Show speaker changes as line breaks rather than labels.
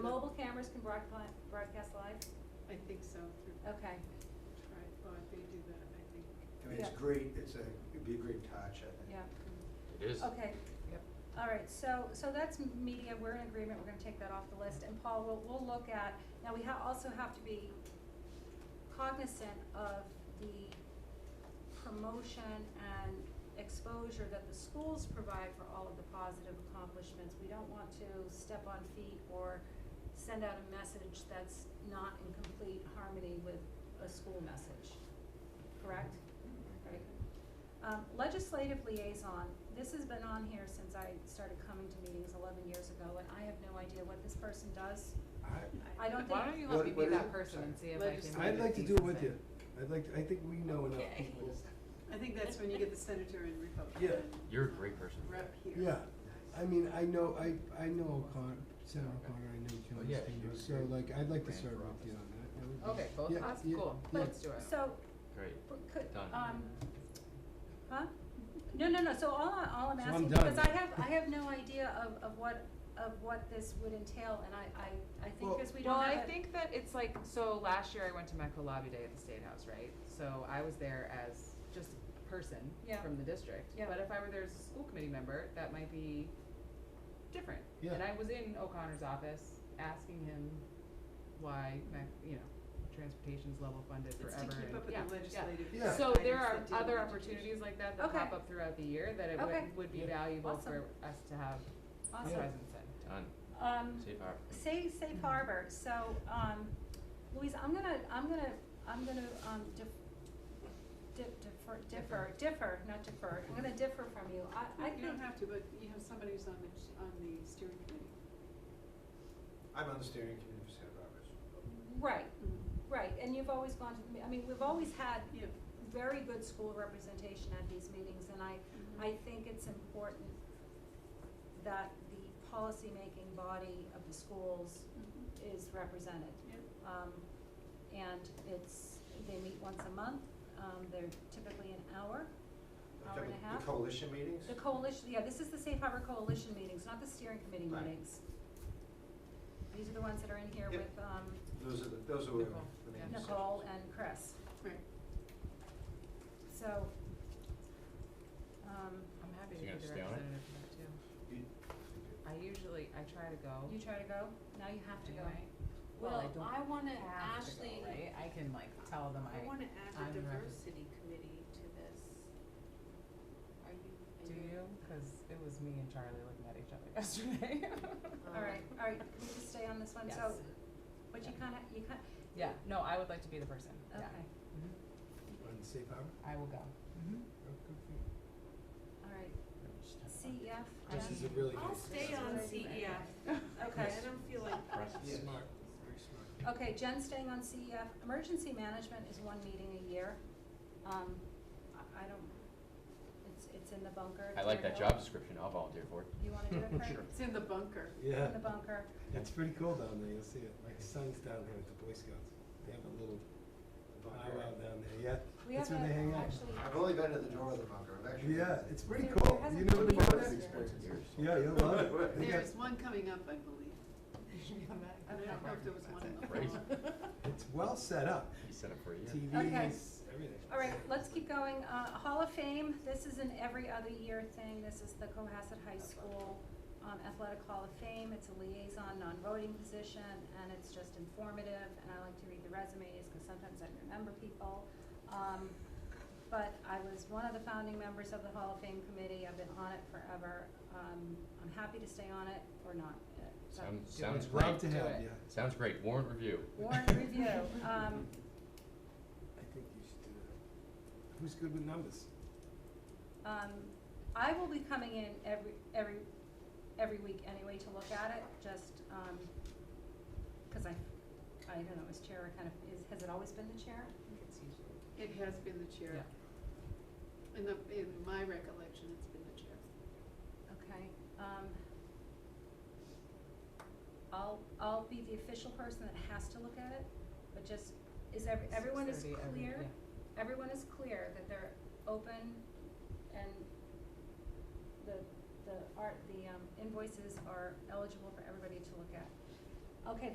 Doris can broadcast, broadcast live?
I think so, through
Okay,
tripod, they do that, I think.
I mean, it's
Yeah.
great, it's a, it'd be a great touch, I think.
yeah,
It is.
okay.
Yep.
All right, so, so that's m- media, we're in agreement, we're gonna take that off the list, and Paul, we'll, we'll look at, now we ha- also have to be cognizant of the promotion and exposure that the schools provide for all of the positive accomplishments. We don't want to step on feet or send out a message that's not in complete harmony with a school message, correct? Right. Um, legislative liaison, this has been on here since I started coming to meetings eleven years ago, and I have no idea what this person does. I don't
Why
think-
don't you let
What-
me be
what is it?
that person and see if I
Legislative.
can.
I'd like to
make
do it with
something.
you. I'd like, to- I think we know enough
Okay.
people.
I think that's when you get the senator and Republican.
Yeah.
You're a great person.
Rep here.
Yeah, I mean, I know, I, I know O'Connor, Sarah O'Connor, I know Jim
Oh, yeah, she
Senior,
was
so
here.
like, I'd like to
Ran
serve
for
with you on that. that. would be-
Okay, both of
yeah,
us,
yeah,
cool,
yeah.
let's do it.
So,
Great.
but could,
Done.
um, huh? No, no, no, so all I, all I'm
So I'm
asking,
done.
because I have, I have no idea of, of what, of what this would entail, and I, I, I think
Well-
because we
Well,
don't have
I
a.
think that it's like, so last year I went to Metco Lobby Day at the State House, right? So I was there as just a person
Yeah.
from the district.
Yeah.
But if I were there as a school committee member, that might be different.
Yeah.
And I was in O'Connor's office asking him why, Mac- you know, transportation's level funded
It's
forever.
to keep
and-
up with
yeah,
the
yeah.
legislative.
Yeah.
So there
items
are
that deal
other
with
opportunities like that that
Okay.
pop up throughout the year that it
Okay.
would, would be
Yeah.
valuable for
Awesome.
us to have a
Awesome.
presence
Done.
Um,
Safe harbor.
Say safe harbor, so, um, Louise, I'm gonna, I'm gonna, I'm gonna, um, dif- di- defer, differ, differ, not defer, I'm gonna differ from you, I, I
You
think,
don't have to, but you have somebody who's on the, on the steering committee.
I'm on the steering committee for Santa Barbara's.
right, right, and you've always gone to, the me- I mean, we've always had
Yeah.
very good school representation at these meetings, and I,
Mm-hmm.
I think it's important that the policymaking body of the schools
Mhm.
is represented.
Yeah.
Um, and it's, they meet once a month, um, they're typically an hour,
Like
Hour
the-
and a half?
The coalition meetings?
the coalition, yeah, this is the Safe Harbor Coalition meetings, not the steering committee
Right.
meetings. These are the ones that are in here
Yep.
with, um,
Those are the, those are the
Nicole,
the
yeah.
main decisions.
Nicole and Chris,
Right.
so, um,
I'm happy to
So
be
you're
the
gonna stay on it?
representative for that too.
You-
I usually, I try to go
you try to go, now you have to go.
Oh. anyway. Well, I don't
wanna,
have to go, right? I can like tell them
I
I,
wanna add
I'm
a
ready.
diversity committee to this. Are you, are
do
you?
you? Cause it was me and Charlie looking at each other yesterday.
All right, all right, can we just stay on this one,
um, Yes.
so, but you
Yeah.
kinda, you kinda,
Yeah, no, I would like to be the person, yeah.
okay,
Mhm.
On safe harbor?
I will go. Mhm.
Oh, good for you.
all right, CEF,
This
Jen?
is a really
I'll
good.
stay on
E
CEF.
Okay.
I don't feel like
Impressive.
Yes.
Smart, very smart.
Okay, Jen staying on CEF, emergency management is one meeting a year. Um, I, I don't, it's, it's in the bunker.
I like that
They're-
job description. I'll volunteer for it.
You wanna do it, Craig?
Sure.
It's in the bunker.
Yeah,
In the bunker,
it's pretty cool down there, you'll see it, my son's down here at the Boy Scouts, they have a little
the bunker.
powwow down there, yeah,
we
that's
have a,
where they hang out.
actually,
I've only been to the door of the bunker, I've actually.
Yeah, it's pretty
There-
cool,
there hasn't
you
been
never
a
been
meeting
there?
this year.
Experience years.
Yeah, you'll love it. They got-
There's one coming up, I believe. I don't know if there was one in the
Crazy.
fall.
It's well set up,
He's set up for a year.
TV
Okay.
is everything.
all right, let's keep going. Uh, Hall of Fame, this is an every other year thing. This is the Cohasset High School um, Athletic Hall of Fame. It's a liaison, non-voting position, and it's just informative, and I like to read the resumes, cause sometimes I remember people. Um, but I was one of the founding members of the Hall of Fame committee. I've been on it forever. Um, I'm happy to stay on it or not. Uh, so-
Sounds,
I'd
sounds
Love
great.
to have
it.
you.
Sounds great. Warrant review.
Warrant review, um,
I think you should do that. Who's good with numbers?
Um, I will be coming in every, every, every week anyway to look at it, just, um 'cause cause I, I don't know, is chair kind of, is, has it always been the chair?
It's usually-
It has been the chair. In the, in my recollection, it's been the chair.
Okay, um, I'll, I'll be the official person that has to look at it, but just, is every, everyone is
6:30 every-
clear?
yeah.
Everyone is clear that they're open and the, the art, the um, invoices are eligible for everybody to look at. Okay,